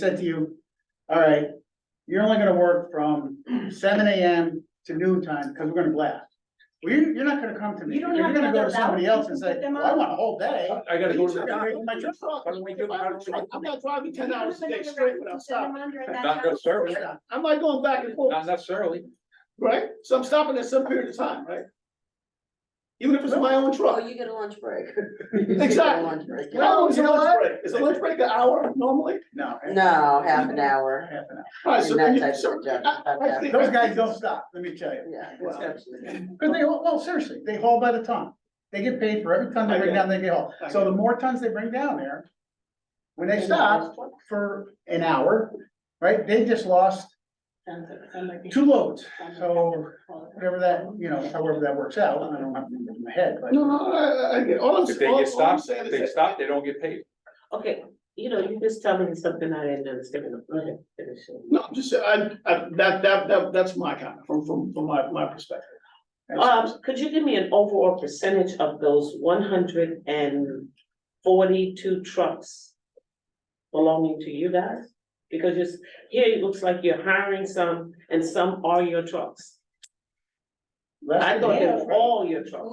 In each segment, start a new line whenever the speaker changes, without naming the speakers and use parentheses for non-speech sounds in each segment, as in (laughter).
said to you, all right, you're only gonna work from seven AM to noon time, because we're gonna blast. Well, you're, you're not gonna come to me,
You
you're
don't have
gonna go
another
to somebody
route
else and
you can
say,
put them
well, I
on?
want a whole day.
I gotta go to
You're gonna make my
the.
truck stop.
Why don't we do it?
If I have a truck, I'm not driving ten hours a day straight without stopping.
Not necessarily,
I'm like going back and forth,
not necessarily.
right? So I'm stopping at some period of time, right? Even if it's my own
Oh,
truck.
you get a lunch break. (laughs)
Exactly.
Lunch break.
How long is a lunch break? Is a lunch break an hour normally? No.
No, half an hour.
Half an hour.
And that's actually just-
Those guys don't stop, let me tell you.
Yeah.
Well,
absolutely.
Cause they, haul- well, seriously, they haul by the ton. They get paid for every ton they
I
bring
get
down, they get hauled.
I
So the more tons they bring down there, when they stop for an hour, right, they just lost two loads. So whatever that, you know, however that works out, I don't have it in my head, but.
No, no, I, I, I get, all I'm,
If they
all- all
get
I'm
stopped,
saying
if
is
they
that-
stop, they don't get paid.
Okay, you know, you just tell me something I didn't understand, go ahead, finish it.
No, I'm just, I, I, that, that, that, that's my comment from, from, from my, my perspective.
Um, could you give me an overall percentage of those one hundred and forty-two trucks belonging to you guys? Because it's, here it looks like you're hiring some and some are your trucks.
Less
I
than
thought they
half,
were
right?
all your trucks.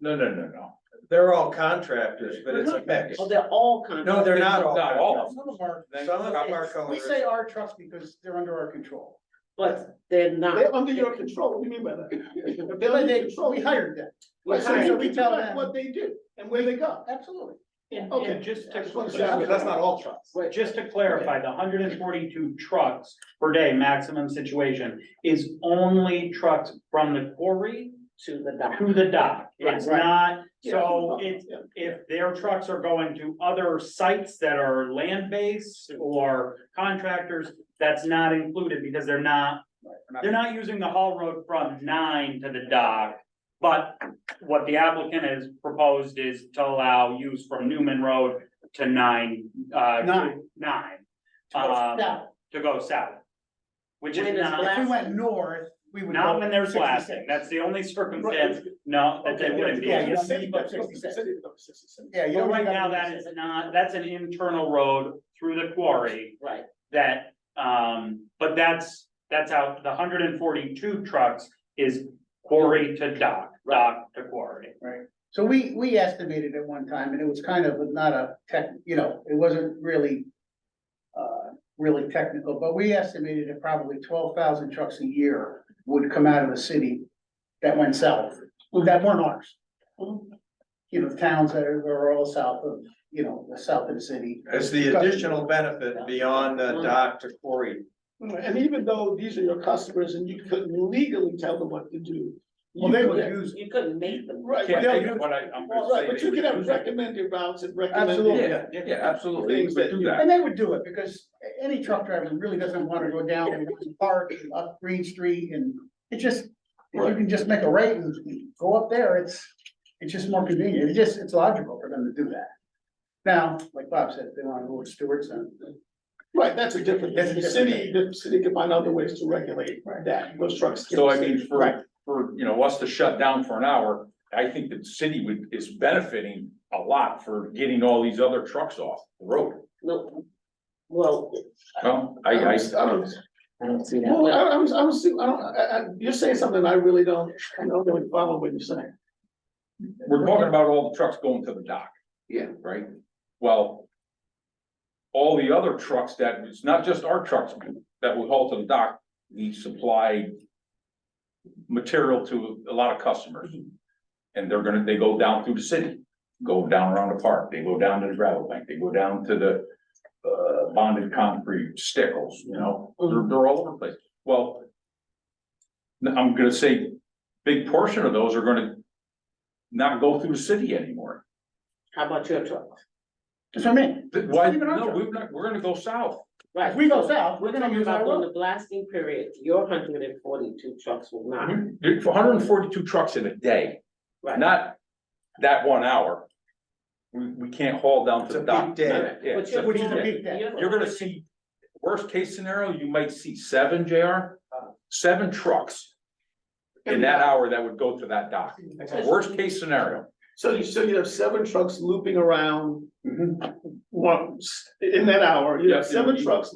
No, no, no, no. They're all contractors, but it's a mix.
Oh, they're all kind
No, they're not all.
Not all of
Some of our-
contractors. Some of them are
We
colors.
say our trucks because they're under our control.
but they're not.
They're under your control, what do you mean by
(laughs)
that? If they're
But
under your
they,
control,
we hired them,
Right, so
Right,
you
we
can
tell
direct
them.
What they do and where they go.
absolutely.
And-
um,
Okay.
and-
Just
I
to,
just want to say,
just-
but that's not all trucks.
just to clarify, the hundred and forty-two trucks per day maximum situation is only trucks from the quarry
To the dock.
to the dock. It's
Right.
not,
Yeah, that's
so
what I'm talking
it's,
about,
if their trucks are going to other sites that are land-based or contractors, that's not included because they're not, they're not using the haul road from nine to the dock. But what the applicant has proposed is to allow use from Newman Road to nine, uh.
Nine.
Nine,
Now,
Um, to go south. Which
When
is
is
not,
black-
If we went north, we would.
not
go
when there's
66.
blasting, that's the only
yeah.
circumstance,
Right.
no, that they
Okay,
wouldn't be.
yeah,
yeah,
yeah.
city, but-
Sixty-six.
city, but sixty-six.
Yeah, you
But
don't
right
gotta
now,
do
that is not, that's an internal road through the quarry
Right,
that, um, but that's, that's how the hundred and forty-two trucks is quarry to dock, dock to quarry.
So we, we estimated at one time, and it was kind of not a tech, you know, it wasn't really. Uh, really technical, but we estimated that probably twelve thousand trucks a year would come out of the city. That went south, that weren't ours. You know, towns that are, are all south of, you know, the south of the city.
It's the additional benefit beyond the dock to quarry.
And even though these are your customers and you couldn't legally tell them what to do.
Well,
you
they would
can't.
use,
you couldn't make them.
Right.
Can't
they'll
take
do-
it, but I, I'm
Well,
just
Right,
saying.
but
they
you can
would
have
use it.
recommended routes and recommended.
Absolutely.
Yeah, yeah, absolutely, we
Things
would
that
do
you-
that.
and they would do it, because any truck driver really doesn't wanna go down and park and up Green Street and. It just, if you can just make a right and go up there, it's, it's just more convenient, it just, it's logical for them to do that. Now, like Bob said, if they wanna go with Stewart's and.
Right, that's a different,
That's a
the
different
city, the city can find other ways to regulate that, those trucks.
So I mean,
Right.
for, for, you know, us to shut down for an hour, I think the city would, is benefiting a lot for getting all these other trucks off the road.
No, well,
Well,
I
I, I,
don't, I don't,
I don't see that.
well, I don't- I was, I was, I don't, I, I, you're saying something I really don't, I don't really follow what you're saying.
we're talking about all the trucks going to the dock.
Yeah.
Right? Well. All the other trucks that, it's not just our trucks that we haul to the dock, we supply. Material to a lot of customers. And they're gonna, they go down through the city, go down around the park, they go down to the gravel bank, they go down to the. Uh, bonded concrete stickles, you know, they're, they're all over the place. Well. I'm gonna say, big portion of those are gonna not go through the city anymore.
How about your truck?
That's what I mean,
Th- Why,
Even our
no,
job.
we're not, we're gonna go south.
Right.
if we go
so
south,
We're
we're gonna
talking
use
about
our
when the
road.
blasting period, your hundred and forty-two trucks will
Mm-hmm.
not,
hundred and forty-two trucks in a day,
right?
not that one hour. We, we can't haul down
It's
to
a
the dock.
big day.
Yeah, yeah,
But
it's a
you're
Which
big
is a
going-
day.
big day.
you're-
You're gonna see, worst case scenario, you might see seven, JR,
Uh.
seven trucks in that hour that would go to that dock. Worst case scenario.
So you, so you have seven trucks looping around
Mhm.
once in that hour, you have
Yeah.
seven trucks